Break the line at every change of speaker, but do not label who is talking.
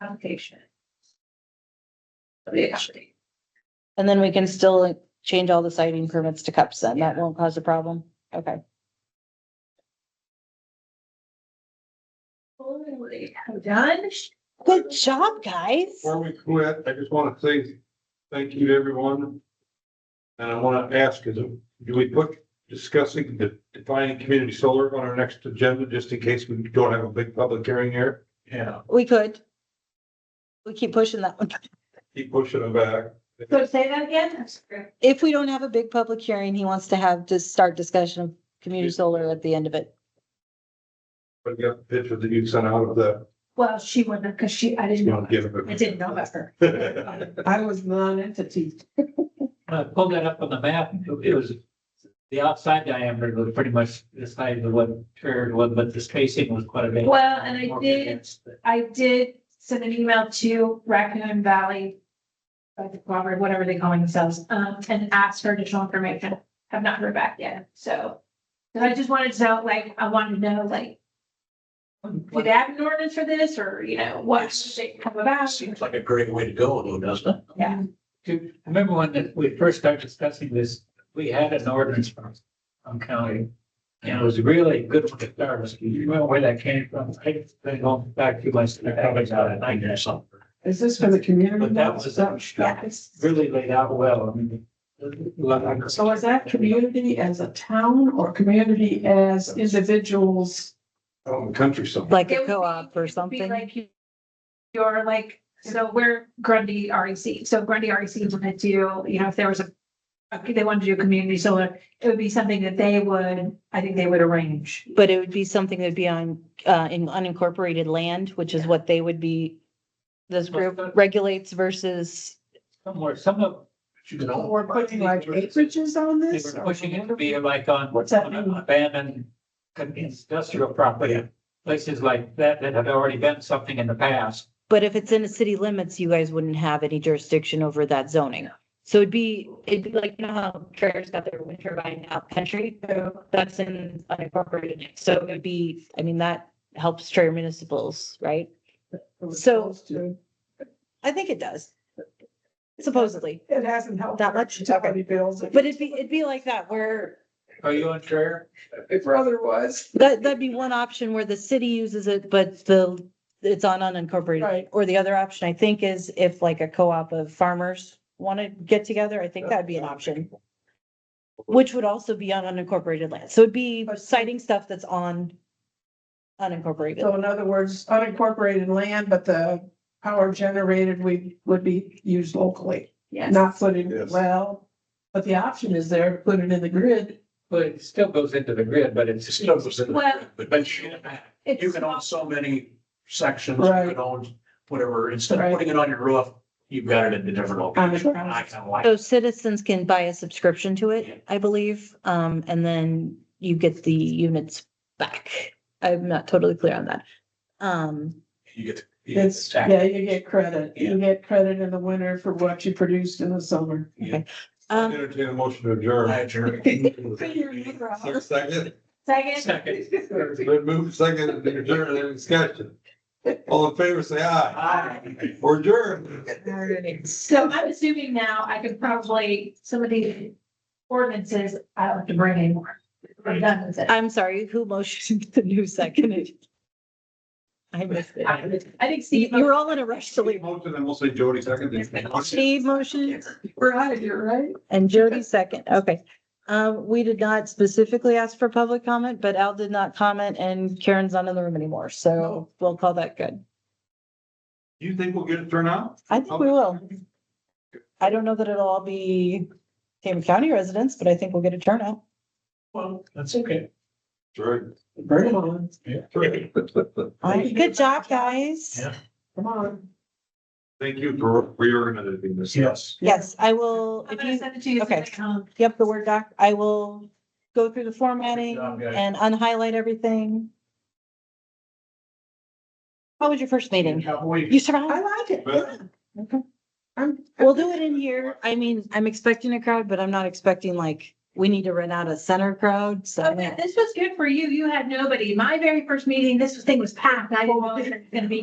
application. Of the property.
And then we can still like, change all the citing permits to cups then. That won't cause a problem. Okay.
Holy, I'm done.
Good job, guys.
Before we quit, I just want to say thank you to everyone. And I want to ask, is, it- do we put discussing the defining community solar on our next agenda, just in case we don't have a big public hearing here? Yeah.
We could. We keep pushing that one.
Keep pushing it back.
So say that again, that's great.
If we don't have a big public hearing, he wants to have, to start discussion of community solar at the end of it.
But you got the picture that you sent out of the,
Well, she wouldn't, because she, I didn't
you
know,
know, give
I
it.
didn't know about her. Um,
I was non-entity.
When I pulled that up on the map, it was, the outside diameter was pretty much the size of what Terry was, but the spacing was quite a bit.
Well, and I
more
did,
condensed.
I did send an email to Raccoon Valley. uh, Robert, whatever they call themselves, um, and asked for additional information. Have not heard back yet, so. So I just wanted to know, like, I wanted to know, like, do they have an ordinance for this, or, you know, what should they come about?
Seems like a great way to go, though, doesn't it?
Yeah.
Do- Remember when we first started discussing this, we had an ordinance from, from county. And it was really good for the stars. Do You remember where that came from? I think going back to my, I probably got it nine years something.
Is this for the community?
But that was- Really laid out well. I mean, it-
So is that community as a town or community as individuals?
Out in the country somewhere.
Like
It
a
would be-
co-op
it would
or
be
something.
Like you- you're like, so we're Grundy REC, so Grundy E REC wanted to, you know, if there was a. Okay, they wanted to do community solar, it would be something that they would, I think they would arrange.
But it would be something that'd be on, uh, in unincorporated land, which is what they would be. This group regulates versus,
Somewhere, some of,
But you can all-
Or putting like acreages on
They
this?
were pushing it to be like on.
What's that
on
mean?
Abandoned industrial property, places like that that had already been something in the past.
but if it's in the city limits, you guys wouldn't have any jurisdiction over that zoning. So it'd be, it'd be like, you know how Traeger's got their wind turbine out country, so that's in unincorporated. So it'd be, I mean, that helps Traeger municipals, right? So- I think it does. Supposedly,
It hasn't helped.
That much? Okay.
Utility bills.
but it'd be, it'd be like that where
Are you on Trayer?
My brother was.
That, that'd be one option where the city uses it, but the, it's on unincorporated.
Right.
Or the other option, I think, is if like a co-op of farmers want to get together, I think that'd be an option. Which would also be on unincorporated land. So it'd be citing stuff that's on
So
unincorporated.
in other words, unincorporated land, but the power generated we would be used locally,
Yes.
not putting,
Yes.
well, but the option is there, put it in the grid.
Well, it still goes into the grid, but
It
it's.
still goes in the-
Well-
But you can-
It's
you can own
not-
so many sections, you
Right.
can own whatever, instead of
Right.
putting it on your roof, you've got it in the different
On the
location.
ground.
I kind of like.
So citizens can buy a subscription to it, I believe, um, and then you get the units back. I'm not totally clear on that. Um,
You get. you get
It's,
tax.
yeah, you get credit. You get credit in the winter for what you produced in the summer.
uh,
um,
Entertain a motion to adjourn.
I adjourn.
There's a Second,
Second,
Second.
It's been moved second, to adjourn, any discussion? All in favor, say aye.
Aye.
Or adjourn.
so I'm assuming now I could probably, some of the ordinances, I don't have to bring anymore. We're done with it.
I'm sorry, who motioned the new second? I missed it.
I I think
You
Steve,
you were all in a rush to leave.
Motion, and we'll say Jody second.
Steve motioned
We're out of here, right?
and Jody second. Okay. Um, we did not specifically ask for public comment, but Al did not comment and Karen's not in the room anymore.
Oh.
So we'll call that good.
You think we'll get it turned out?
I think we will. I don't know that it'll all be Tama County residents, but I think we'll get a turnout.
Well, that's okay.
Sure.
Bring it on.
All right, Good job, guys.
Yeah.
Come on.
Thank you for reorganizing this.
Yes.
Yes, I will.
I'm
If
gonna
you,
send it to you.
okay.
Um,
yep, the Word doc, I will go through the formatting
job, guys.
and unhighlight everything. How was your first meeting? You
I
survived?
like it.
Yeah.
Yeah.
Okay.
I'm.
We'll do it in here. I mean, I'm expecting a crowd, but I'm not expecting like, we need to rent out a center crowd, so.
Okay, this was good for you. You had nobody. My very first meeting, this thing was packed. I didn't know it was gonna be